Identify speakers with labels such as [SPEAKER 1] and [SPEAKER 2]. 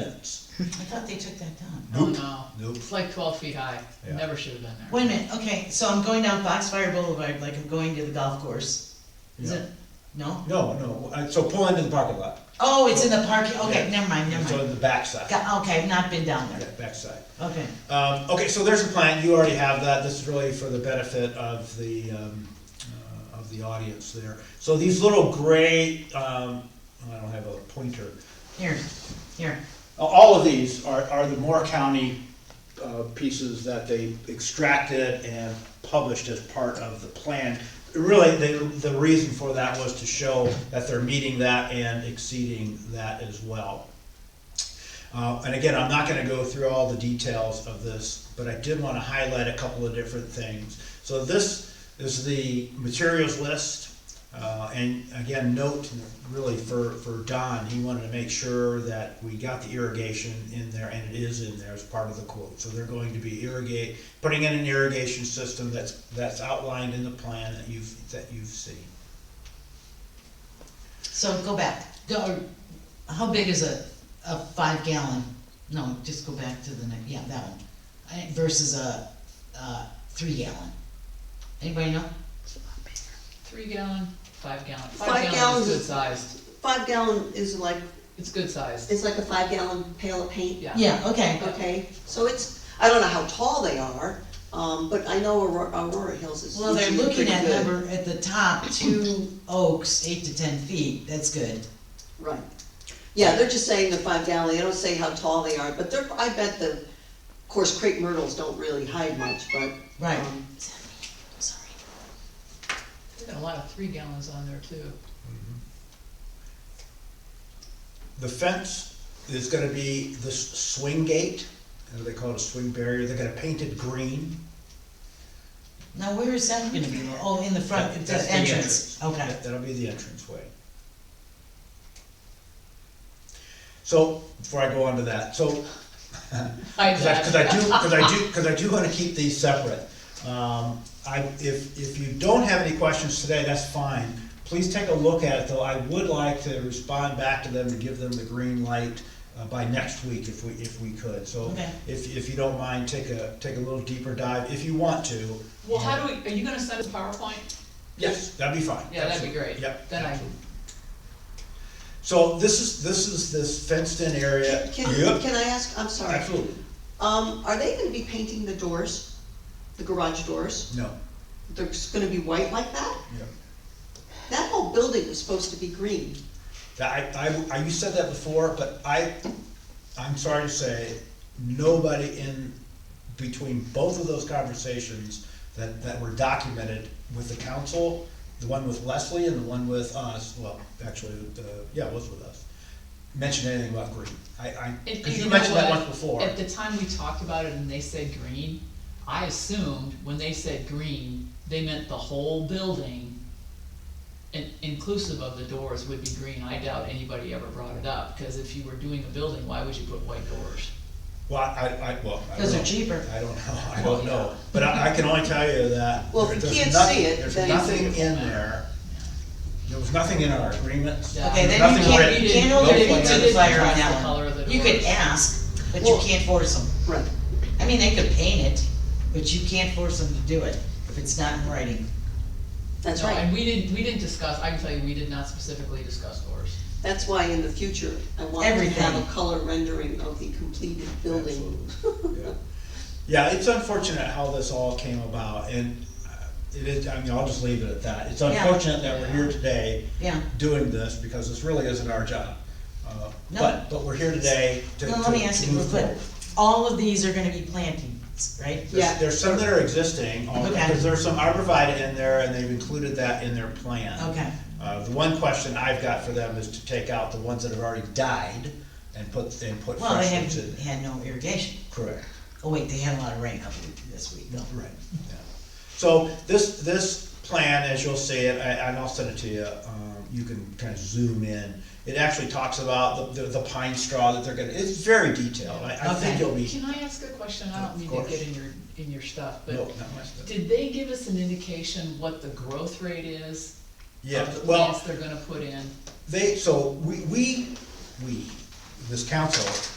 [SPEAKER 1] fence.
[SPEAKER 2] I thought they took that down.
[SPEAKER 3] Oh,
[SPEAKER 1] Nope.
[SPEAKER 3] no.
[SPEAKER 1] Nope.
[SPEAKER 3] It's like twelve feet high,
[SPEAKER 1] Yeah.
[SPEAKER 3] never should have been there.
[SPEAKER 2] Wait a minute, okay, so I'm going down Foxfire Boulevard like I'm going to the golf course. Is
[SPEAKER 1] Yeah.
[SPEAKER 2] it, no?
[SPEAKER 1] No, no, uh, so pull into the parking lot.
[SPEAKER 2] Oh, it's in the parking, okay,
[SPEAKER 1] Yeah.
[SPEAKER 2] never mind, never
[SPEAKER 1] It's on
[SPEAKER 2] mind.
[SPEAKER 1] the backside, yeah,
[SPEAKER 2] Got- Okay, I've not been down there,
[SPEAKER 1] backside.
[SPEAKER 2] okay.
[SPEAKER 1] Um, okay, so there's a plan, you already have that, this is really for the benefit of the, um, uh, of the audience there. So these little gray, um, I don't have a pointer,
[SPEAKER 2] Here, here,
[SPEAKER 4] All of these are, are the Moore County uh, pieces that they extracted and published as part of the plan.
[SPEAKER 1] Really, the, the reason for that was to show that they're meeting that and exceeding that as well. Uh, and again, I'm not gonna go through all the details of this, but I did wanna highlight a couple of different things. So this is the materials list, uh, and again, note really for, for Don, he wanted to make sure that we got the irrigation in there, and it is in there as part of the quote. So they're going to be irrigate, putting in an irrigation system that's, that's outlined in the plan that you've, that you've seen.
[SPEAKER 2] so go back. Go, how big is a, a five gallon? No, just go back to the next, yeah, that one. I- Versus a, uh, three gallon. Anybody know?
[SPEAKER 3] Three gallon, five gallon,
[SPEAKER 5] Five
[SPEAKER 3] five gallon
[SPEAKER 5] gallons
[SPEAKER 3] is good
[SPEAKER 5] is-
[SPEAKER 3] sized,
[SPEAKER 5] Five gallon is like,
[SPEAKER 3] it's good sized,
[SPEAKER 5] it's like a five gallon pail of paint.
[SPEAKER 3] yeah.
[SPEAKER 2] Yeah, okay,
[SPEAKER 5] Okay, so it's, I don't know how tall they are, um, but I know Aurora, Aurora Hills is
[SPEAKER 2] well, they're
[SPEAKER 5] usually
[SPEAKER 2] looking
[SPEAKER 5] pretty
[SPEAKER 2] at
[SPEAKER 5] good.
[SPEAKER 2] number, at the top, two oaks, eight to ten feet, that's good.
[SPEAKER 5] Right. Yeah, they're just saying the five gallon, they don't say how tall they are, but they're, I bet the, of course, crepe myrtles don't really hide much, but.
[SPEAKER 2] Right.
[SPEAKER 5] um,
[SPEAKER 2] Sorry.
[SPEAKER 3] There's been a lot of three gallons on there too.
[SPEAKER 1] The fence is gonna be this swing gate, uh, they call it a swing barrier, they're gonna paint it green.
[SPEAKER 2] Now, where is that gonna be? Oh, in the front,
[SPEAKER 1] That-
[SPEAKER 2] it's
[SPEAKER 1] that's
[SPEAKER 2] the
[SPEAKER 1] the
[SPEAKER 2] entrance, okay.
[SPEAKER 1] That- That'll be the entrance way. So, before I go on to that, so
[SPEAKER 3] I
[SPEAKER 1] Cause I, cause I do, cause I do, cause I do wanna keep these separate. Um, I, if, if you don't have any questions today, that's fine. Please take a look at it, though. I would like to respond back to them and give them the green light uh, by next week if we, if we could. So
[SPEAKER 2] Okay.
[SPEAKER 1] if, if you don't mind, take a, take a little deeper dive if you want to. Um,
[SPEAKER 3] Well, how do we, are you gonna send us PowerPoint?
[SPEAKER 1] Yes, that'd be fine.
[SPEAKER 3] Yeah, that'd be great.
[SPEAKER 1] Yep.
[SPEAKER 3] Then I,
[SPEAKER 1] absolutely. So this is, this is this fenced-in area.
[SPEAKER 5] Can,
[SPEAKER 1] Yep,
[SPEAKER 5] can I ask, I'm sorry.
[SPEAKER 1] Absolutely.
[SPEAKER 5] Um, are they gonna be painting the doors, the garage doors?
[SPEAKER 1] No,
[SPEAKER 5] They're just gonna be white like that?
[SPEAKER 1] yeah.
[SPEAKER 5] That whole building was supposed to be green.
[SPEAKER 1] That I, I, I, you said that before, but I, I'm sorry to say, nobody in between both of those conversations that, that were documented with the council, the one with Leslie and the one with us, well, actually, uh, yeah, it was with us, mentioned anything about green. I, I,
[SPEAKER 3] and- and
[SPEAKER 1] cause you
[SPEAKER 3] know
[SPEAKER 1] mentioned that
[SPEAKER 3] what?
[SPEAKER 1] once before.
[SPEAKER 3] At the time we talked about it and they said green, I assumed when they said green, they meant the whole building. And inclusive of the doors would be green, I doubt anybody ever brought it up, cause if you were doing a building, why would you put white doors?
[SPEAKER 1] Well, I, I, well, I don't
[SPEAKER 2] Those are
[SPEAKER 1] know.
[SPEAKER 2] cheaper.
[SPEAKER 1] I don't know, I
[SPEAKER 3] Well,
[SPEAKER 1] don't
[SPEAKER 3] yeah.
[SPEAKER 1] know, but I, I can only tell you that.
[SPEAKER 5] Well, if you
[SPEAKER 1] there's
[SPEAKER 5] can't
[SPEAKER 1] nothing-
[SPEAKER 5] see it, then
[SPEAKER 1] There's
[SPEAKER 5] it's-
[SPEAKER 1] nothing in there, there was nothing in our agreements.
[SPEAKER 3] Yeah.
[SPEAKER 2] Okay, then you
[SPEAKER 1] Nothing
[SPEAKER 2] can't,
[SPEAKER 1] written.
[SPEAKER 2] you can't
[SPEAKER 1] No
[SPEAKER 2] hold your
[SPEAKER 1] plan.
[SPEAKER 2] feet to the fire on
[SPEAKER 3] Trust the
[SPEAKER 2] that
[SPEAKER 3] color of the
[SPEAKER 2] one. You could
[SPEAKER 3] doors.
[SPEAKER 2] ask, but you
[SPEAKER 5] Well-
[SPEAKER 2] can't force them.
[SPEAKER 5] Right.
[SPEAKER 2] I mean, they could paint it, but you can't force them to do it if it's not in writing.
[SPEAKER 5] That's
[SPEAKER 3] No, And
[SPEAKER 5] right.
[SPEAKER 3] we didn't, we didn't discuss, I can tell you, we did not specifically discuss doors.
[SPEAKER 5] That's why in the future, I want to have
[SPEAKER 2] Everything.
[SPEAKER 5] a color rendering of the completed building.
[SPEAKER 1] Absolutely, yeah. Yeah, it's unfortunate how this all came about, and uh, it is, I mean, I'll just leave it at that. It's
[SPEAKER 2] Yeah.
[SPEAKER 1] unfortunate that we're here today
[SPEAKER 2] Yeah.
[SPEAKER 1] doing this, because this really isn't our job. Uh,
[SPEAKER 2] No.
[SPEAKER 1] But, but we're here today to, to
[SPEAKER 2] Now,
[SPEAKER 1] to move
[SPEAKER 2] let me ask you real quick,
[SPEAKER 1] forward.
[SPEAKER 2] all of these are gonna be plantings, right?
[SPEAKER 5] Yeah.
[SPEAKER 1] There's some that are existing, all-
[SPEAKER 2] Okay.
[SPEAKER 1] because there's some arborvitae in there, and they've included that in their plan.
[SPEAKER 2] Okay.
[SPEAKER 1] Uh, the one question I've got for them is to take out the ones that have already died and put, and put
[SPEAKER 2] Well, they
[SPEAKER 1] fresh
[SPEAKER 2] have,
[SPEAKER 1] ones in there.
[SPEAKER 2] had no irrigation.
[SPEAKER 1] Correct.
[SPEAKER 2] Oh, wait, they had a lot of rain up this week, though.
[SPEAKER 1] Right, yeah. So this, this plan, as you'll see it, I- and I'll send it to you, um, you can kind of zoom in. It actually talks about the, the- the pine straw that they're gonna, it's very detailed, I, I think
[SPEAKER 2] Okay.
[SPEAKER 1] you'll be,
[SPEAKER 3] Can I ask a question? I
[SPEAKER 1] Of
[SPEAKER 3] don't mean
[SPEAKER 1] course.
[SPEAKER 3] to get in your, in your stuff,
[SPEAKER 1] no,
[SPEAKER 3] but
[SPEAKER 1] not much. but-
[SPEAKER 3] did they give us an indication what the growth rate is
[SPEAKER 1] Yeah,
[SPEAKER 3] of the
[SPEAKER 1] well,
[SPEAKER 3] plants they're gonna put in?
[SPEAKER 1] they, so we, we, we, this council